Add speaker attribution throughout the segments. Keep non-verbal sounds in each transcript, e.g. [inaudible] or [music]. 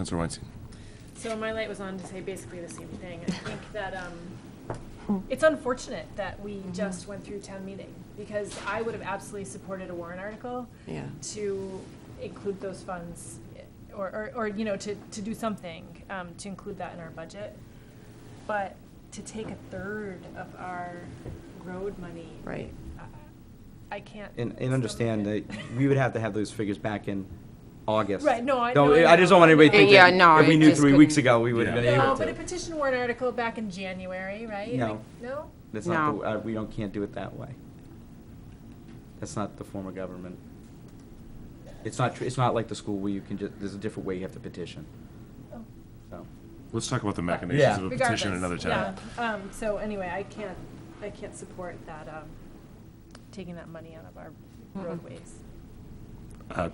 Speaker 1: Counselor Weinstein.
Speaker 2: So my light was on to say basically the same thing.
Speaker 3: [laughs]
Speaker 2: I think that um, it's unfortunate that we
Speaker 3: Mm-hmm.
Speaker 2: just went through town meeting because I would have absolutely supported a warrant article
Speaker 3: Yeah.
Speaker 2: to include those funds or, or, or you know, to, to do something um, to include that in our budget. But to take a third of our road money.
Speaker 3: Right.
Speaker 2: I- I can't.
Speaker 4: And, and understand that we would have to have those figures back in August.
Speaker 2: Right, no, I-
Speaker 4: Don't-
Speaker 2: no, I
Speaker 4: I just don't want
Speaker 2: know.
Speaker 4: anybody thinking,
Speaker 5: Yeah, no,
Speaker 4: if we
Speaker 5: it
Speaker 4: knew
Speaker 5: just
Speaker 4: three weeks
Speaker 5: couldn't-
Speaker 4: ago, we would have been
Speaker 2: No,
Speaker 4: able
Speaker 2: but a
Speaker 4: to.
Speaker 2: petition warrant article back in January, right?
Speaker 4: No.
Speaker 2: Like, No?
Speaker 4: That's not,
Speaker 5: No.
Speaker 4: the- uh, we don't, can't do it that way. That's not the form of government. It's not, tr- it's not like the school where you can just, there's a different way you have to petition,
Speaker 2: Oh.
Speaker 4: so.
Speaker 1: Let's talk
Speaker 4: Uh,
Speaker 1: about the machinations of a petition another
Speaker 2: Regardless,
Speaker 1: time.
Speaker 2: Yeah, um, so anyway, I can't, I can't support that, um, taking that money out of our roadways.
Speaker 1: Uh,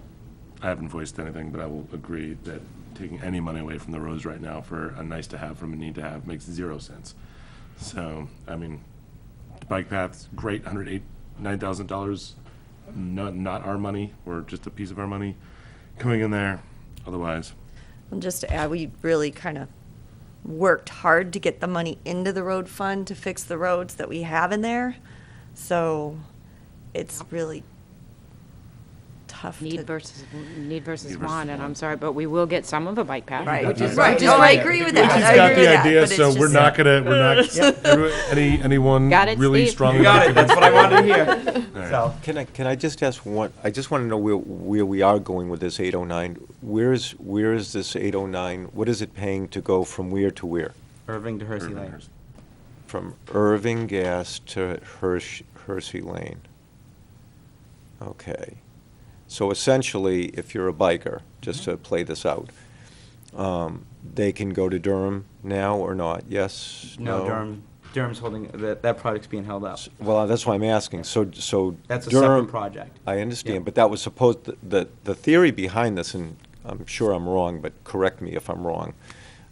Speaker 1: I haven't voiced anything, but I will agree that taking any money away from the roads right now for a nice to have from a need to have makes zero sense. So, I mean, the bike paths, great, hundred eight, nine thousand dollars, not, not our money, or just a piece of our money coming in there, otherwise.
Speaker 3: And just to add, we really kind of worked hard to get the money into the road fund to fix the roads that we have in there. So it's really tough to.
Speaker 5: Need versus, need versus
Speaker 1: Need versus
Speaker 5: want, and I'm
Speaker 1: want.
Speaker 5: sorry, but we will get some of a bike path,
Speaker 3: Right.
Speaker 5: which is,
Speaker 3: Right.
Speaker 5: which is
Speaker 3: Oh, I
Speaker 5: great.
Speaker 3: agree with
Speaker 1: Richie's
Speaker 3: that. I
Speaker 1: got
Speaker 3: agree
Speaker 1: the
Speaker 3: with that,
Speaker 1: idea,
Speaker 3: but it's
Speaker 1: so we're
Speaker 3: just-
Speaker 1: not gonna, we're
Speaker 3: [laughs]
Speaker 1: not, everyone- any, anyone
Speaker 5: Got it,
Speaker 1: really
Speaker 5: Steve?
Speaker 1: strongly.
Speaker 4: You got it, that's what I wanted to hear.
Speaker 1: All right.
Speaker 4: So,
Speaker 6: Can I, can I just ask one, I just want to know where, where we are going with this 809. Where is, where is this 809, what is it paying to go from where to where?
Speaker 4: Irving to Hersey Lane.
Speaker 6: From Irving Gas to Hersh, Hersey Lane? Okay. So essentially, if you're a biker, just
Speaker 4: Mm-hmm.
Speaker 6: to play this out, um, they can go to Durham now or not? Yes?
Speaker 4: No, Durham, Durham's holding, that, that project's being held up.
Speaker 6: Well, that's why I'm asking. So, so.
Speaker 4: That's a
Speaker 6: Durham-
Speaker 4: separate project.
Speaker 6: I
Speaker 4: Yeah.
Speaker 6: understand, but that was supposed, th- the, the theory behind this, and I'm sure I'm wrong, but correct me if I'm wrong.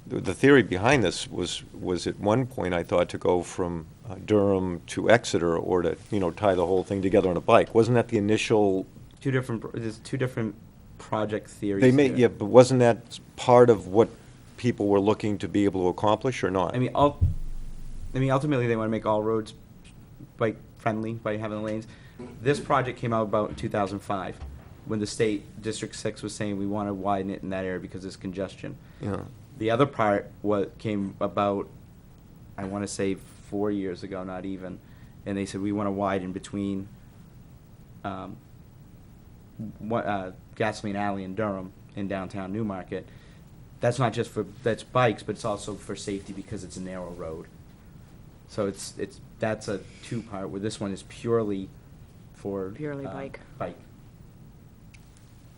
Speaker 6: The the theory behind this was, was at one point, I thought, to go from uh, Durham to Exeter or to, you know, tie the whole thing together on a bike. Wasn't that the initial,
Speaker 4: Two different, pro- there's two different project theories
Speaker 6: they made,
Speaker 4: here.
Speaker 6: yeah, but wasn't that part of what people were looking to be able to accomplish or not?
Speaker 4: I mean, ul- I mean, ultimately, they want to make all roads bike friendly by having lanes. This project came out about in 2005, when the state District Six was saying we want to widen it in that area because there's congestion.
Speaker 6: Yeah.
Speaker 4: The other part was came about, I want to say four years ago, not even, and they said we want to widen between, um, what, uh, Gasoline Alley in Durham in downtown Newmarket. That's not just for, that's bikes, but it's also for safety because it's a narrow road. So it's, it's, that's a two-part, where this one is purely for.
Speaker 5: Purely
Speaker 4: uh,
Speaker 5: bike.
Speaker 4: Bike.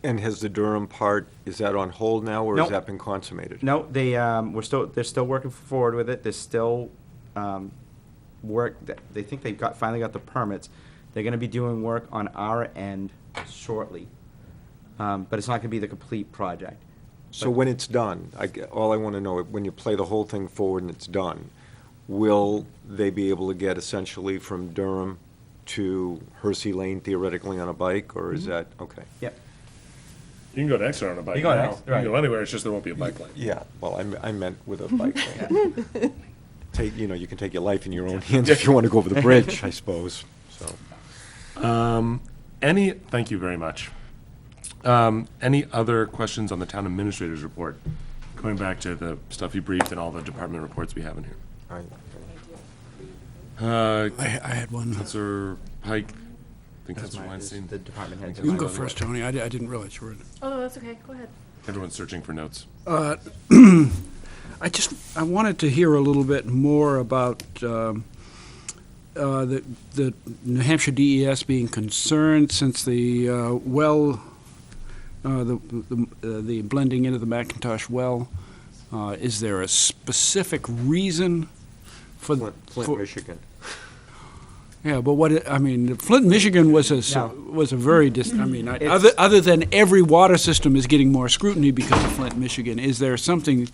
Speaker 6: And has the Durham part, is that on hold now, or
Speaker 4: Nope.
Speaker 6: has that been consummated?
Speaker 4: No, they, um, we're still, they're still working forward with it, there's still, um, work, that- they think they've got, finally got the permits. They're gonna be doing work on our end shortly, um, but it's not gonna be the complete project.
Speaker 6: So when it's done, I, g- all I want to know, when you play the whole thing forward and it's done, will they be able to get essentially from Durham to Hersey Lane theoretically on a bike, or is that, okay?
Speaker 4: Yep.
Speaker 1: You can go to Exeter on a bike
Speaker 4: You go to
Speaker 1: now.
Speaker 4: Exeter,
Speaker 1: You can go
Speaker 4: right.
Speaker 1: anywhere, it's just there won't be a bike lane.
Speaker 6: Yeah, well, I me- I meant with [laughs] a bike lane. Take, you know, you can take your life in your own hands if you want to go over [laughs] the bridge, I suppose, so.
Speaker 1: Any, thank you very much. Um, Any other questions on the town administrator's report? Going back to the stuff you briefed and all the department reports we have in here.
Speaker 6: I-
Speaker 1: Uh,
Speaker 7: I, I had one.
Speaker 1: Counselor Pike, I think Counselor
Speaker 4: mine is
Speaker 1: Weinstein.
Speaker 4: the department heads.
Speaker 7: You can go first, Tony. I, di- I didn't realize you were. in.
Speaker 2: Oh, no, that's okay, go ahead.
Speaker 1: Everyone's searching for notes.
Speaker 7: I just, I wanted to hear a little bit more about um, uh, the, the New Hampshire DES being concerned since the uh, well, uh, the, the, uh, the blending into the Macintosh well. Uh, Is there a specific reason for?
Speaker 6: Flint, Flint,
Speaker 7: for-
Speaker 6: Michigan.
Speaker 7: Yeah, but what, it- I mean, Flint, Michigan was a, s-
Speaker 4: No.
Speaker 7: was a very, dis- I mean, I-
Speaker 4: It's-
Speaker 7: other, other than every water system is getting more scrutiny because of Flint, Michigan, is there something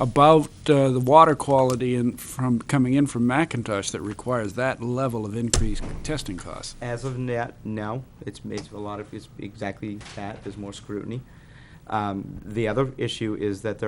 Speaker 7: about uh, the water quality in, from, coming in from Macintosh that requires that level of increased testing costs?
Speaker 4: As of now, no, it's, it's a lot of, it's exactly that, there's more scrutiny. Um, The other issue is that there